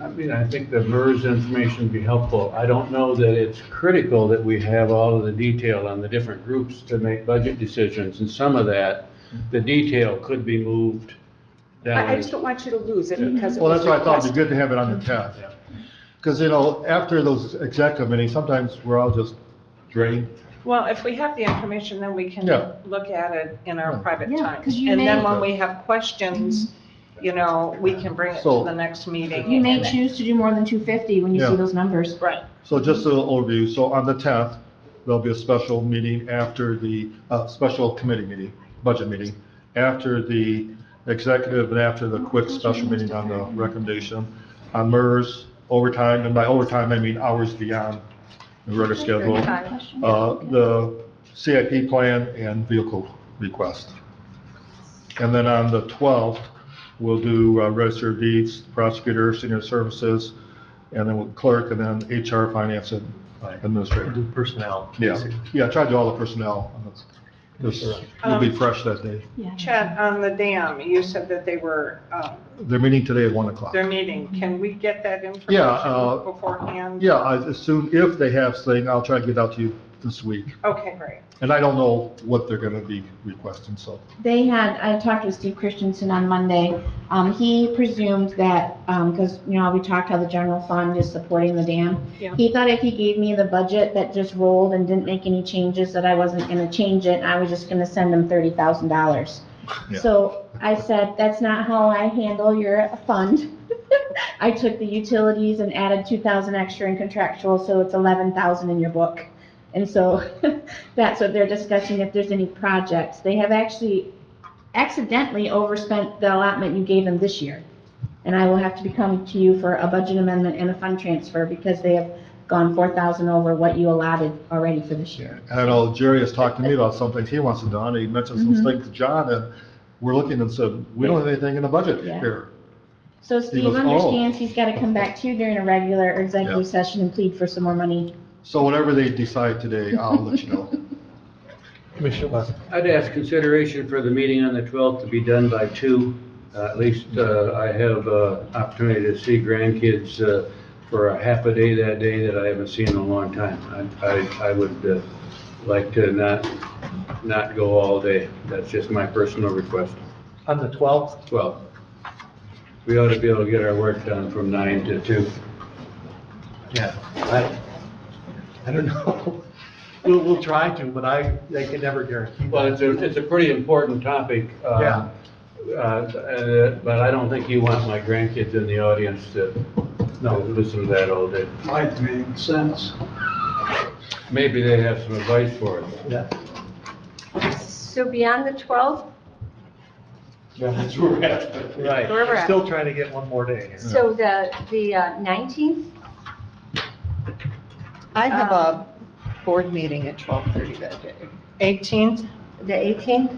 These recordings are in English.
I mean, I think the MERS information would be helpful. I don't know that it's critical that we have all of the detail on the different groups to make budget decisions, and some of that, the detail could be moved down. I, I just don't want you to lose it because it Well, was that's why I thought it'd be requested. good to have it on the tenth. Because, you know, after those executive meetings, sometimes we're all just drained. Well, if we have the information, then we can Yeah. look at it in our Yeah. private Yeah, time. 'cause you And then may- when we have questions, you know, we can bring it to So- the next meeting. You may and- choose to do more than two fifty when you Yeah. see those numbers. Right, So just a little overview, so on the tenth, there'll be a special meeting after the, uh, special committee meeting, budget meeting, after the executive and after the quick special meeting on the recommendation. On MERS overtime, and by overtime, I mean hours beyond the regular schedule. Uh, the CIP plan and vehicle request. And then on the 12th, we'll do uh, register of deeds, prosecutor, senior services, and then with clerk, and then HR, finance, and administrator. Do personnel. Yeah, yeah, I tried to do all the personnel. on this. This will be fresh that day. Yeah. Chad, on the dam, you said that they were, um, They're meeting today at 1 o'clock. they're meeting. Can we get that uh, information beforehand? Yeah, I assume if they have thing, I'll try to get out to you this week. Okay, great. And I don't know what they're gonna be requesting, so. They had, I talked with Steve Christensen on Monday. Um, he presumed that, um, because, you know, we talked how the general fund is supporting the dam. Yeah. He thought if he gave me the budget that just rolled and didn't make any changes, that I wasn't gonna change it, and I was just gonna send him thirty thousand dollars. Yeah. So I said, that's not how I handle your fund. I took the utilities and added two thousand extra in contractual, so it's eleven thousand in your book. And so that's what they're discussing, if there's any projects. They have actually accidentally overspent the allotment you gave them this year. And I will have to be coming to you for a budget amendment and a fund transfer because they have gone four thousand over what you allotted already for this year. And I know Jerry has talked to me about some things he wants to do, and he mentioned some Mhm. things to John, and we're looking and said, we don't have anything in the budget Yeah. here. So Steve goes, "Oh." understands he's gotta come back to you during a regular Yeah. or executive session and plead for some more money. So whatever they decide today, I'll let you know. Commissioner West. I'd ask consideration for the meeting on the 12th to be done by two. Uh, At least uh, I have uh, opportunity to see grandkids uh, for a half a day that day that I haven't seen in a long time. I- I, I would uh, like to not, not go all day. That's just my personal request. On the 12th, 12. We ought to be able to get our work done from nine to two. yeah, I, I don't know. We'll, we'll try to, but I, I can never guarantee. Well, it's a, it's a pretty important topic. um, Yeah. uh, and, uh, But I don't think you want my grandkids in the audience to to listen to that all day. Might make sense. Maybe they have some advice for us. Yeah. So beyond the 12th, That's where we're at. Right. Where we're at. Still trying to get one more day. so the, the uh, 19th, I have Um, a board meeting at 12:30 that day. 18th? the 18th,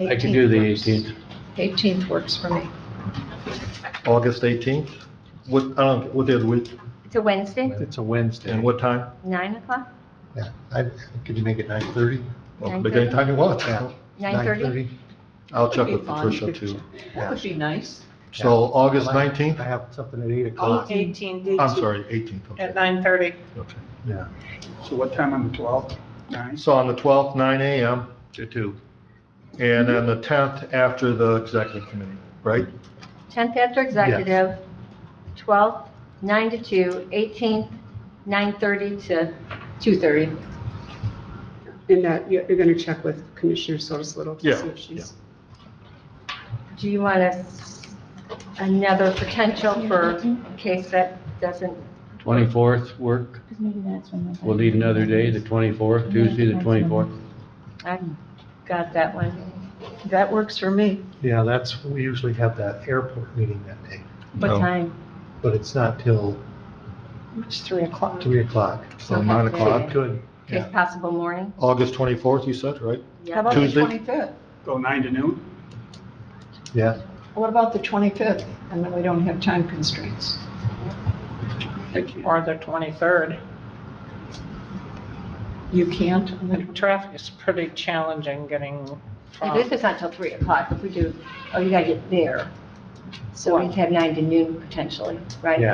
I can do the 18th. 18th works. 18th works for me. August 18th, what, I don't, what day of the week it's a Wednesday, It's a Wednesday. and what time? 9 o'clock, Yeah, I, could you make it 9:30? Well, Make any time you want. Yeah. 9:30? I'll check Would be with fun. Patricia too. That would be nice. So August 19th, I have something at 8 o'clock. 18th. I'm sorry, 18th. okay. At 9:30. Okay. Yeah. So what time on the 12th? Nine? So on the 12th, 9 AM, To two. and then the 10th after the executive committee, right? 10th after executive, 12th, 9 to 2, 18th, 9:30 to 2:30. And that, you're you're gonna check with Commissioner Sotis Little Yeah, to see if she's. Do you want a, another potential for in case that doesn't, 24th work. 'Cause maybe that's when my- We'll need another day, the 24th, Tuesday, the 24th. I've got that one. That works for me. Yeah, that's, we usually have that airport meeting that day, What No. time? but it's not till It's 3 o'clock. 3 o'clock. So 9 Okay. o'clock, Good. Case possible morning? August 24th, you said, right? How about the Tuesday? 25th? Go nine to noon? Yeah. What about the 25th? And then we don't have time constraints. Or the 23rd. You can't? on The the- traffic is pretty challenging getting If from. This is not till 3 o'clock, if we do, oh, you gotta get there. So we'd have nine to noon potentially, right? Yeah.